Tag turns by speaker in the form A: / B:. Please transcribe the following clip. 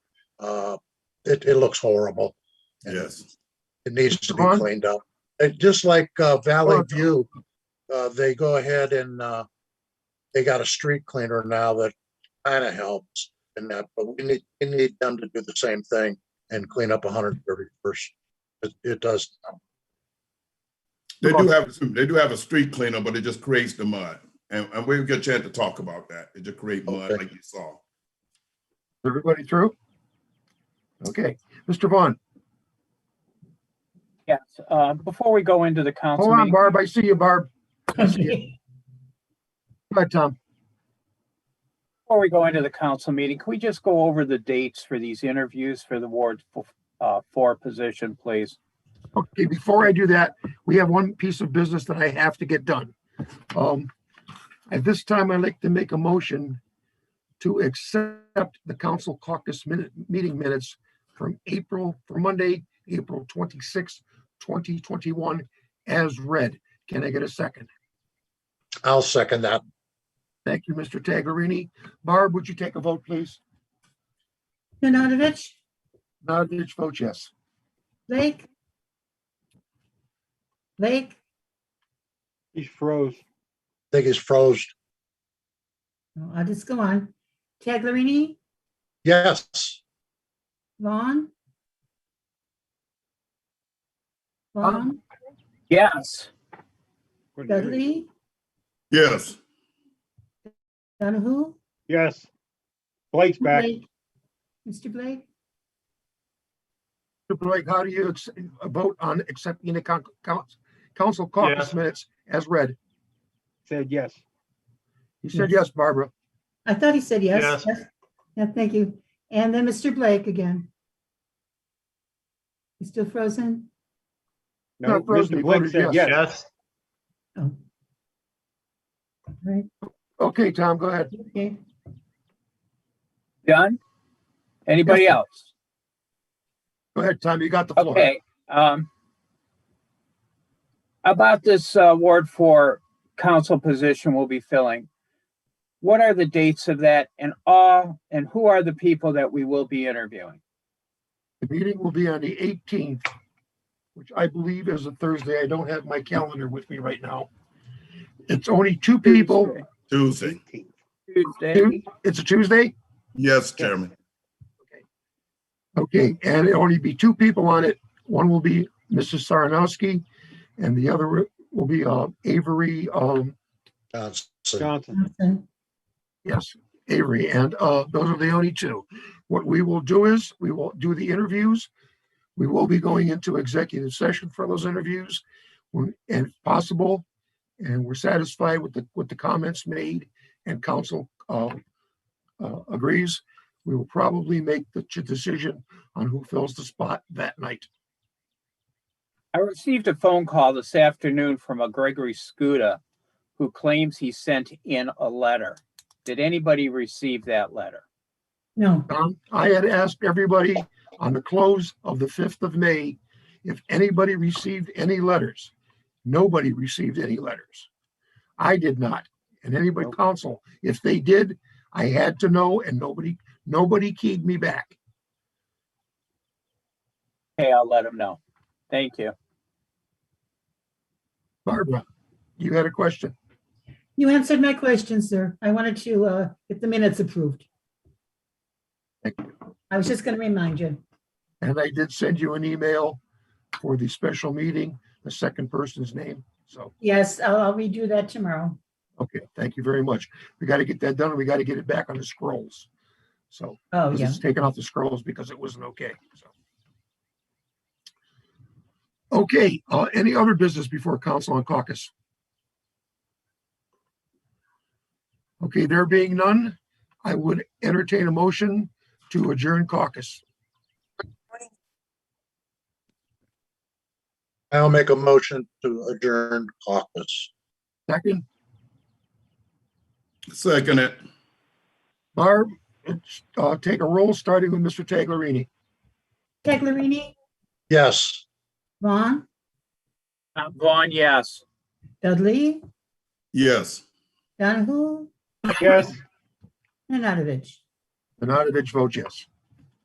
A: uh, it, it looks horrible. And
B: Yes,
A: It needs to be
C: Vaughn?
A: cleaned up. And just like uh, Valley
C: Vaughn.
A: View, uh, they go ahead and, uh, they got a street cleaner now that kind of helps in that, but we need, we need them to do the same thing and clean up 131st. It, it does.
B: they do have, they do have a street cleaner, but it just creates the mud. And, and we'll get a chance to talk about that. It just create mud
A: Okay.
B: like you saw.
C: Everybody through? Okay, Mr. Vaughn,
D: Yes, uh, before we go into the council
C: hold on,
D: meeting,
C: Barb, I see you, Barb. I see you. Go ahead, Tom.
D: before we go into the council meeting, can we just go over the dates for these interviews for the Ward f- uh, Four position, please?
C: Okay, before I do that, we have one piece of business that I have to get done. Um, at this time, I'd like to make a motion to accept the council caucus minute, meeting minutes from April, for Monday, April twenty-sixth, twenty twenty-one, as read. Can I get a second?
A: I'll second that.
C: Thank you, Mr. Taglerini. Barb, would you take a vote, please?
E: Nanadovich,
C: Nodovich votes yes.
E: Blake? Blake,
F: He's froze.
A: I think he's froze.
E: No, I'll just go on. Taglerini,
A: Yes.
E: Vaughn? Vaughn,
F: Um,
D: Yes,
F: Couldn't hear you.
E: Dudley,
B: Yes,
E: Donahue?
F: Yes. Blake's back.
E: Blake, Mr. Blake,
C: Mr. Blake, how do you ex- vote on accepting the con- coun- council caucus
F: Yes.
C: minutes as read?
F: Said yes.
C: He said
E: Yes.
C: yes, Barbara.
E: I thought he said yes.
F: Yes.
E: Yes. Yeah, thank you. And then Mr. Blake again. You still frozen?
F: No,
C: No, frozen.
F: Mr.
C: He
F: Blake
C: voted
F: said
C: yes.
F: yes.
E: Oh. All Right,
C: Okay, Tom, go ahead.
E: okay.
D: done? Anybody
C: Yes, sir.
D: else?
C: Go ahead, Tom, you got the floor.
D: Okay, um. About this uh, Ward Four council position we'll be filling. What are the dates of that and all, and who are the people that we will be interviewing?
C: The meeting will be on the eighteenth, which I believe is a Thursday. I don't have my calendar with me right now. It's only two people. Hmm?
B: Tuesday.
D: Tuesday,
C: It's a Tuesday?
B: Yes, Chairman.
C: Okay, and it'll only be two people on it. One will be Mrs. Saranowski and the other will be uh, Avery, um,
A: Johnson.
F: Johnson.
E: Johnson.
C: Yes, Avery, and uh, those are the only two. What we will do is, we will do the interviews. We will be going into executive session for those interviews when, and if possible. And we're satisfied with the, with the comments made and council uh, uh, agrees. We will probably make the ch- decision on who fills the spot that night.
D: I received a phone call this afternoon from a Gregory Scuda who claims he sent in a letter. Did anybody receive that letter?
E: No,
C: Um, I had asked everybody on the close of the 5th of May if anybody received any letters. Nobody received any letters. I did not. And anybody
F: Nope.
C: council, if they did, I had to know and nobody, nobody keyed me back.
D: Okay, I'll let him know. Thank you.
C: Barbara, you had a question?
E: you answered my question, sir. I wanted to uh, get the minutes approved.
C: Thank you.
E: I was just going to remind you.
C: And I did send you an email for the special meeting, the second person's name. So,
E: Yes, I'll I'll redo that tomorrow.
C: okay, thank you very much. We got to get that done. and We got to get it back on the scrolls. So.
E: Oh,
C: because
E: yeah.
C: it's taken off the scrolls because it wasn't okay, so. Okay, uh, any other business before council on caucus? Okay, there being none, I would entertain a motion to adjourn caucus.
A: I'll make a motion to adjourn caucus.
C: Second,
B: Second it.
C: Barb, uh, take a roll, starting with Mr. Taglerini.
E: Taglerini,
A: Yes.
E: Vaughn,
D: Uh, Vaughn, yes.
E: Dudley,
B: Yes.
E: Donahue,
F: Yes.
E: Nanadovich.
C: Nanadovich votes yes.